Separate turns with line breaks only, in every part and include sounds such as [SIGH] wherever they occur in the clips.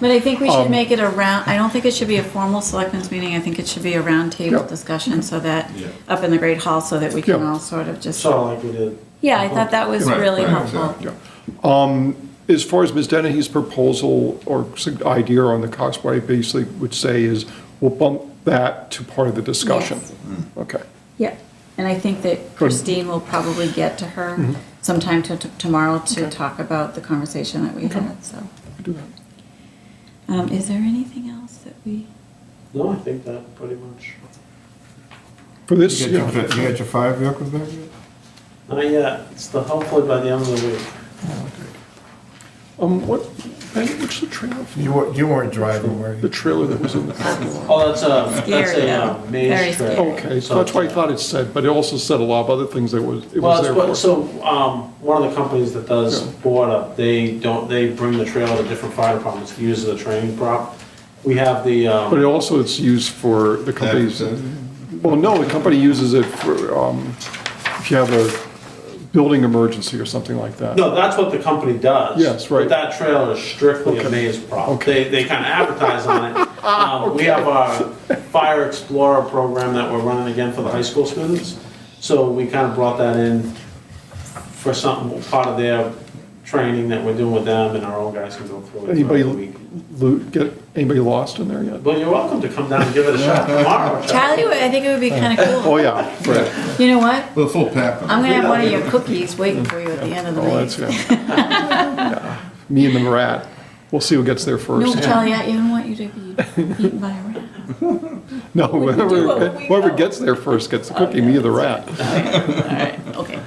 But I think we should
Um,
make it a round, I don't think it should be a formal selectmen's meeting, I think it should be a roundtable
Yeah.
discussion so that,
Yeah.
up in the Great Hall, so that we can
Yeah.
all sort of just,
Sort of like we did.
yeah, I thought that was
Right,
really
right,
helpful.
exactly.
Yeah. Um, As far as Ms. Dennehy's proposal or sug- idea on the cost, what I basically would say is, we'll bump that to part of the discussion.
Yes.
Okay.
Yeah, and I think that Christine will probably get to
Mm-hmm.
her sometime to, to- tomorrow to talk about the conversation that we had, so.
we do that.
Um, is there anything else that we,
No, I think that pretty much.
For
You
this,
got
yeah.
your, you got your five vehicles back yet?
Not yet. It's the hopefully by the end of the week.
Um, what, Ben, what's the trailer?
You weren't, you weren't driving, were
The
you?
trailer that was in the parking lot?
Oh, that's a, that's
Scary,
a
though.
uh,
Very
maze
scary.
trip.
Okay, so that's why I
it's, uh,
thought it said, but it also said a lot of other things that was, it
Well,
was
it's
there
what,
for.
so, um, one of the companies that does
Yeah.
border, they don't, they bring the trail to different fire departments to use as a training prop. We have the,
But
um,
it also it's used for the companies, well, no, the company uses it for, um, if you have a building emergency or something like that.
no, that's what the company does.
Yes, right.
But that trail is strictly
Okay.
a maze prop.
Okay.
They, they kind of advertise
[LAUGHS]
on it. Um, we have our Fire Explorer program that we're running again for the high school students. So we kind of brought that in for something, part of their training that we're doing with them and our own guys can go through it
Anybody
throughout the week.
loot, get, anybody lost in there yet?
Well, you're welcome to come down and give it a shot tomorrow. Chuck.
Charlie, I think it would be kind of
Oh,
cool.
yeah, right.
You know what?
With a full pack.
I'm gonna have one of your cookies waiting for you at the end of the
Oh, that's,
meeting.
yeah. Yeah. Me and the rat. We'll see who gets there
No,
first.
Charlie, I I don't want you to be eaten by a rat.
No,
we do
whoever
what we
whoever
know.
gets there first gets the cookie, me or the rat.
All right, okay.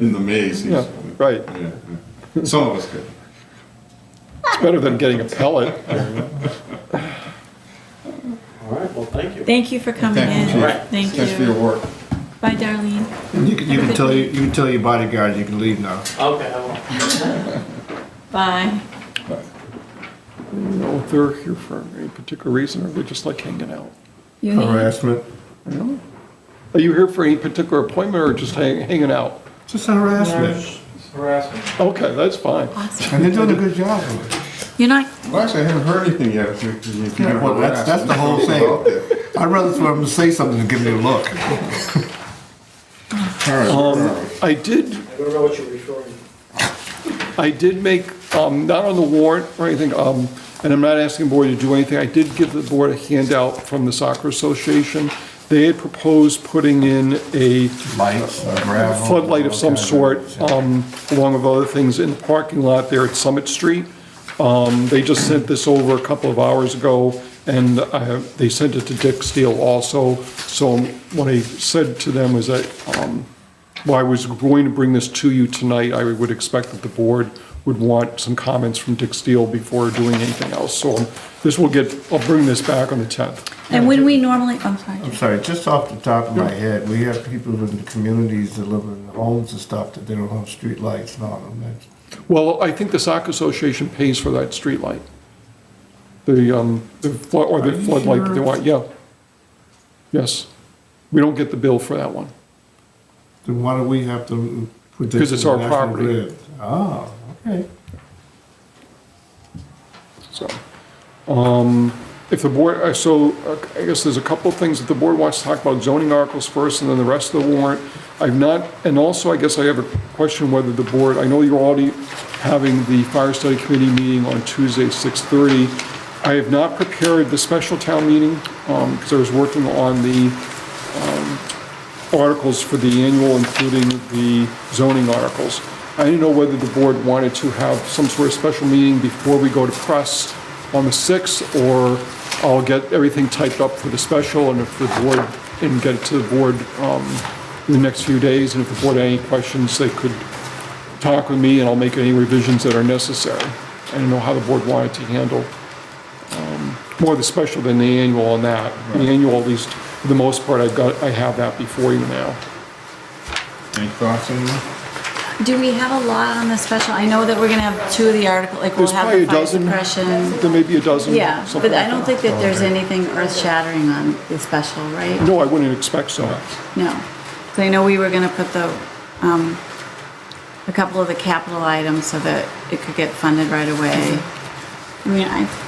In the maze. he's-
Yeah, right.
Yeah, yeah. Some of us could.
It's better than getting a pellet.
All right, well, thank you.
Thank you for coming
Thank you,
in.
Chief.
Right.
Thank
Thanks for your
you.
work.
Bye, Darlene.
You can, you can tell, your- you can tell your bodyguard you can leave now.
Okay, I will.
Bye.
You know, if they're here for any particular reason, or they just like hanging out.
You need-
Harassment,
you know? Are you here for any particular appointment or just hang, hanging out?
just harassment.
Okay, that's fine.
Awesome.
And they're doing a good job of it.
You're not,
Well, actually, I haven't heard anything yet. If you- if you get
Yeah, well, that's,
harassed,
that's the whole
it's
thing.
out there.
I'd rather for them to say something than give me a look.
All right.
Um, I did,
I don't know what you're referring to.
I did make, um, not on the warrant or anything, um, and I'm not asking the board to do anything. I did give the board a handout from the soccer association. They had proposed putting in a
Lights, gravel.
floodlight of some sort, um, along with other things in the parking lot there at Summit Street. Um, They just sent this over a couple of hours ago, and I have- they sent it to Dick Steele also. So what I said to them was that, um, while I was going to bring this to you tonight, I would expect that the board would want some comments from Dick Steele before doing anything else. So um, this will get, I'll bring this back on the 10th.
and when we normally, I'm sorry.
I'm sorry, just off the top of my head, we have people in the communities that live in homes and stuff that they don't have streetlights and all of that.
Well, I think the soccer association pays for that streetlight. The, um, the flood, or the floodlight that they want, yeah. Yes. We don't get the bill for that one.
Then why do we have to put this?
Because it's
in
our
the National
property.
Grid? Ah, okay.
So, um, if the board, uh, so uh, I guess there's a couple of things that the board wants to talk about, zoning articles first and then the rest of the warrant. I've not, and also I guess I have a question whether the board, I know you're already having the fire study committee meeting on Tuesday, 6:30. I have not prepared the special town meeting, um, because I was working on the, articles for the annual, including the zoning articles. I didn't know whether the board wanted to have some sort of special meeting before we go to press on the 6th, or I'll get everything typed up for the special, and if the board, and get it to the board um, in the next few days, and if the board had any questions, they could talk with me, and I'll make any revisions that are necessary. I didn't know how the board wanted to handle more the special than the annual on that. The annual, at least, for the most part, I've got, I have that before you now.
Any thoughts on that?
Do we have a lot on the special? I know that we're gonna have two of the article, like we'll
There's
have
probably
the
a
fire
dozen.
suppression.
There may be a dozen,
Yeah,
something
but I
like
don't
that.
think that there's anything earth shattering on the special, right?
No, I wouldn't expect so.
No. So I know we were gonna put the, um, a couple of the capital items so that it could get funded right away. I mean, I,